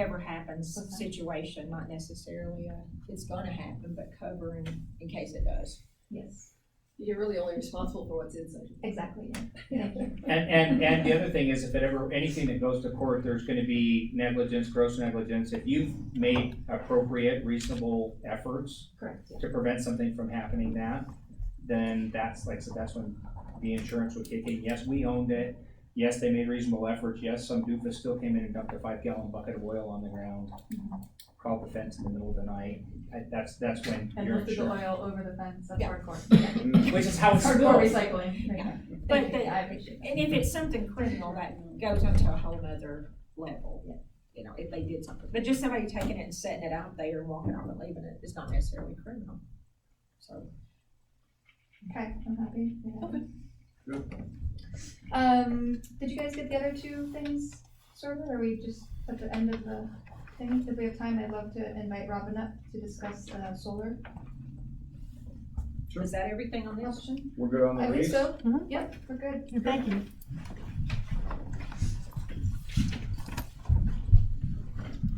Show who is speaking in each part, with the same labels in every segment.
Speaker 1: ever happens situation, not necessarily a, it's gonna happen, but covering in case it does.
Speaker 2: Yes,
Speaker 3: You're really only responsible for what's inside.
Speaker 2: exactly, yeah.
Speaker 4: And, and, and the other thing is if it ever, anything that goes to court, there's gonna be negligence, gross negligence. If you've made appropriate, reasonable efforts
Speaker 2: Correct, yeah.
Speaker 4: to prevent something from happening that, then that's like, so that's when the insurance would kick in. Yes, we owned it. Yes, they made reasonable efforts. Yes, some doofus still came in and dumped a five gallon bucket of oil on the ground. Crawled the fence in the middle of the night. I- That's, that's when
Speaker 5: And
Speaker 4: your
Speaker 5: lifted the
Speaker 4: insurance.
Speaker 5: oil over the fence, that's
Speaker 1: Yeah.
Speaker 5: hardcore.
Speaker 4: Which is how it's
Speaker 5: Hardcore
Speaker 4: supposed.
Speaker 5: recycling, right?
Speaker 1: But
Speaker 2: Thank you,
Speaker 1: the-
Speaker 2: yeah, I appreciate that.
Speaker 1: And if it's something criminal, that goes onto a whole nother level. You know, if they did something, but just somebody taking it and setting it out there and walking off and leaving it is not necessarily criminal. So.
Speaker 2: Okay, I'm happy. we're happy.
Speaker 6: Good.
Speaker 2: Um, did you guys get the other two things sorted, or we just at the end of the thing? If we have time, I'd love to invite Robin up to discuss, uh, solar
Speaker 6: Sure.
Speaker 1: Is that everything on this?
Speaker 2: question.
Speaker 6: We're good on the
Speaker 2: I think
Speaker 6: lease?
Speaker 2: so,
Speaker 1: Mm-hmm.
Speaker 5: Mhm.
Speaker 2: yep, we're good.
Speaker 5: Thank you.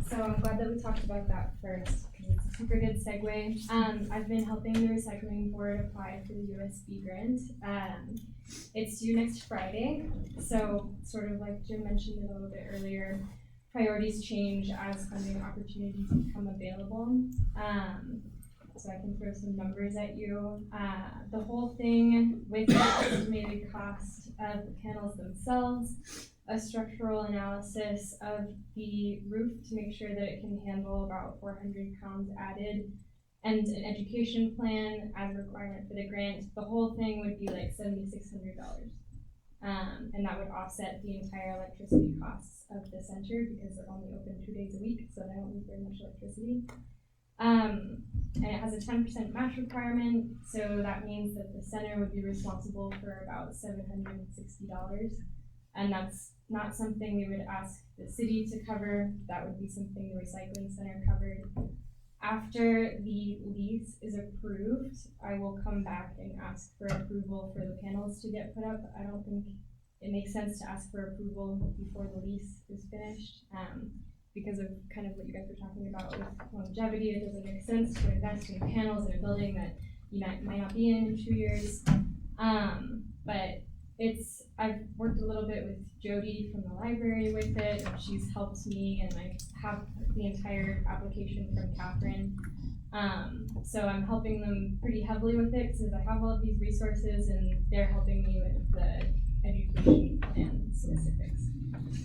Speaker 7: So I'm glad that we talked about that first, because it's a super good segue. Um, I've been helping the recycling board apply for the USB grant. Um, it's due next Friday, so sort of like Jim mentioned it a little bit earlier, priorities change as funding opportunities become available. Um, so I can throw some numbers at you. Uh, the whole thing with the estimated cost of the panels themselves, a structural analysis of the roof to make sure that it can handle about four hundred pounds added. And an education plan as a requirement for the grant, the whole thing would be like seventy-six hundred dollars. Um, and that would offset the entire electricity costs of the center because they're only open two days a week, so they don't use very much electricity. Um, and it has a ten percent match requirement, so that means that the center would be responsible for about seven hundred and sixty dollars. And that's not something we would ask the city to cover, that would be something the recycling center covered. After the lease is approved, I will come back and ask for approval for the panels to get put up. I don't think it makes sense to ask for approval before the lease is finished, um, because of kind of what you guys were talking about with longevity, it doesn't make sense to invest in panels in a building that you might, might not be in in two years. Um, but it's I've worked a little bit with Jody from the library with it, and she's helped me, and I have the entire application from Catherine. Um, so I'm helping them pretty heavily with it because I have all of these resources, and they're helping me with the education plan specifics.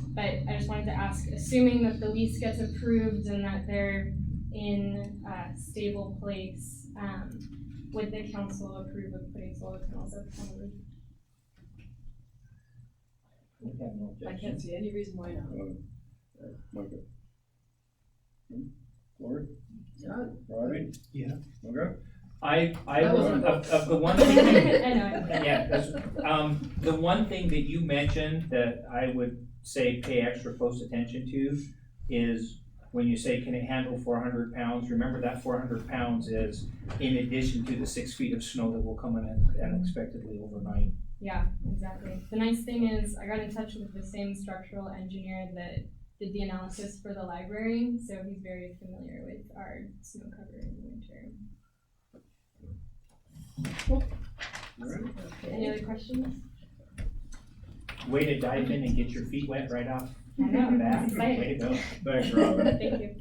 Speaker 7: But I just wanted to ask, assuming that the lease gets approved and that they're in a stable place, um, would the council approve of putting solar panels up on the roof?
Speaker 4: We have no
Speaker 3: I
Speaker 4: objection.
Speaker 3: can't see any reason why not.
Speaker 6: Um, uh, Micah. Hmm? Lori?
Speaker 3: Yeah.
Speaker 6: Robbie?
Speaker 8: Yeah.
Speaker 6: Okay.
Speaker 4: I, I,
Speaker 3: That was
Speaker 4: of,
Speaker 3: my goal.
Speaker 4: of the one
Speaker 7: I
Speaker 4: thing,
Speaker 7: know.
Speaker 4: yeah, that's, um, the one thing that you mentioned that I would say pay extra close attention to is when you say, can it handle four hundred pounds, remember that four hundred pounds is in addition to the six feet of snow that will come in unexpectedly overnight.
Speaker 7: Yeah, exactly. The nice thing is, I got in touch with the same structural engineer that did the analysis for the library, so he's very familiar with our snow cover in the winter.
Speaker 6: All right.
Speaker 7: Any other questions?
Speaker 4: Way to dive in and get your feet wet right off
Speaker 7: I know,
Speaker 4: the bat,
Speaker 7: that's exciting.
Speaker 4: way to go.
Speaker 6: Thanks, Robin.
Speaker 7: Thank you.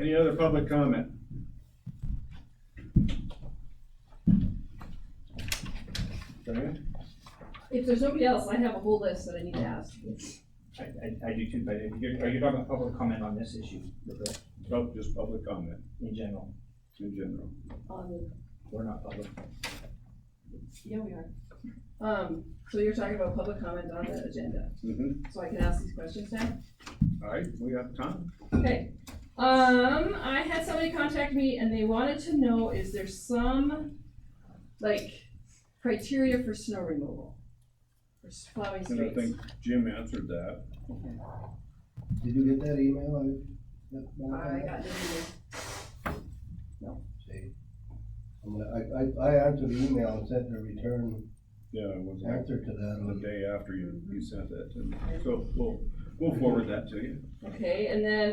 Speaker 6: Any other public comment? Diane?
Speaker 3: If there's nobody else, I have a whole list that I need to ask.
Speaker 4: I, I, I do too, but if you're, are you talking about public comment on this issue
Speaker 6: Okay. Nope, Oh, just public comment
Speaker 4: in general?
Speaker 6: in general.
Speaker 3: Um,
Speaker 4: We're not public.
Speaker 3: yeah, we are. Um, so you're talking about public comment on the agenda,
Speaker 6: Mm-hmm.
Speaker 3: so I can ask these questions now?
Speaker 6: All right, we have time.
Speaker 3: Okay, um, I had somebody contact me and they wanted to know, is there some, like, criteria for snow removal? For s- plowing
Speaker 6: And I
Speaker 3: streets?
Speaker 6: think Jim answered that.
Speaker 8: Did you get that email? I- that- that-
Speaker 3: I got this,
Speaker 8: See, I'm gonna- I, I, I answered the email and sent a return
Speaker 6: Yeah, it was like
Speaker 8: answer to that
Speaker 6: the
Speaker 8: on
Speaker 6: day after you, you sent that to me. So we'll, we'll forward that to you.
Speaker 3: okay, and then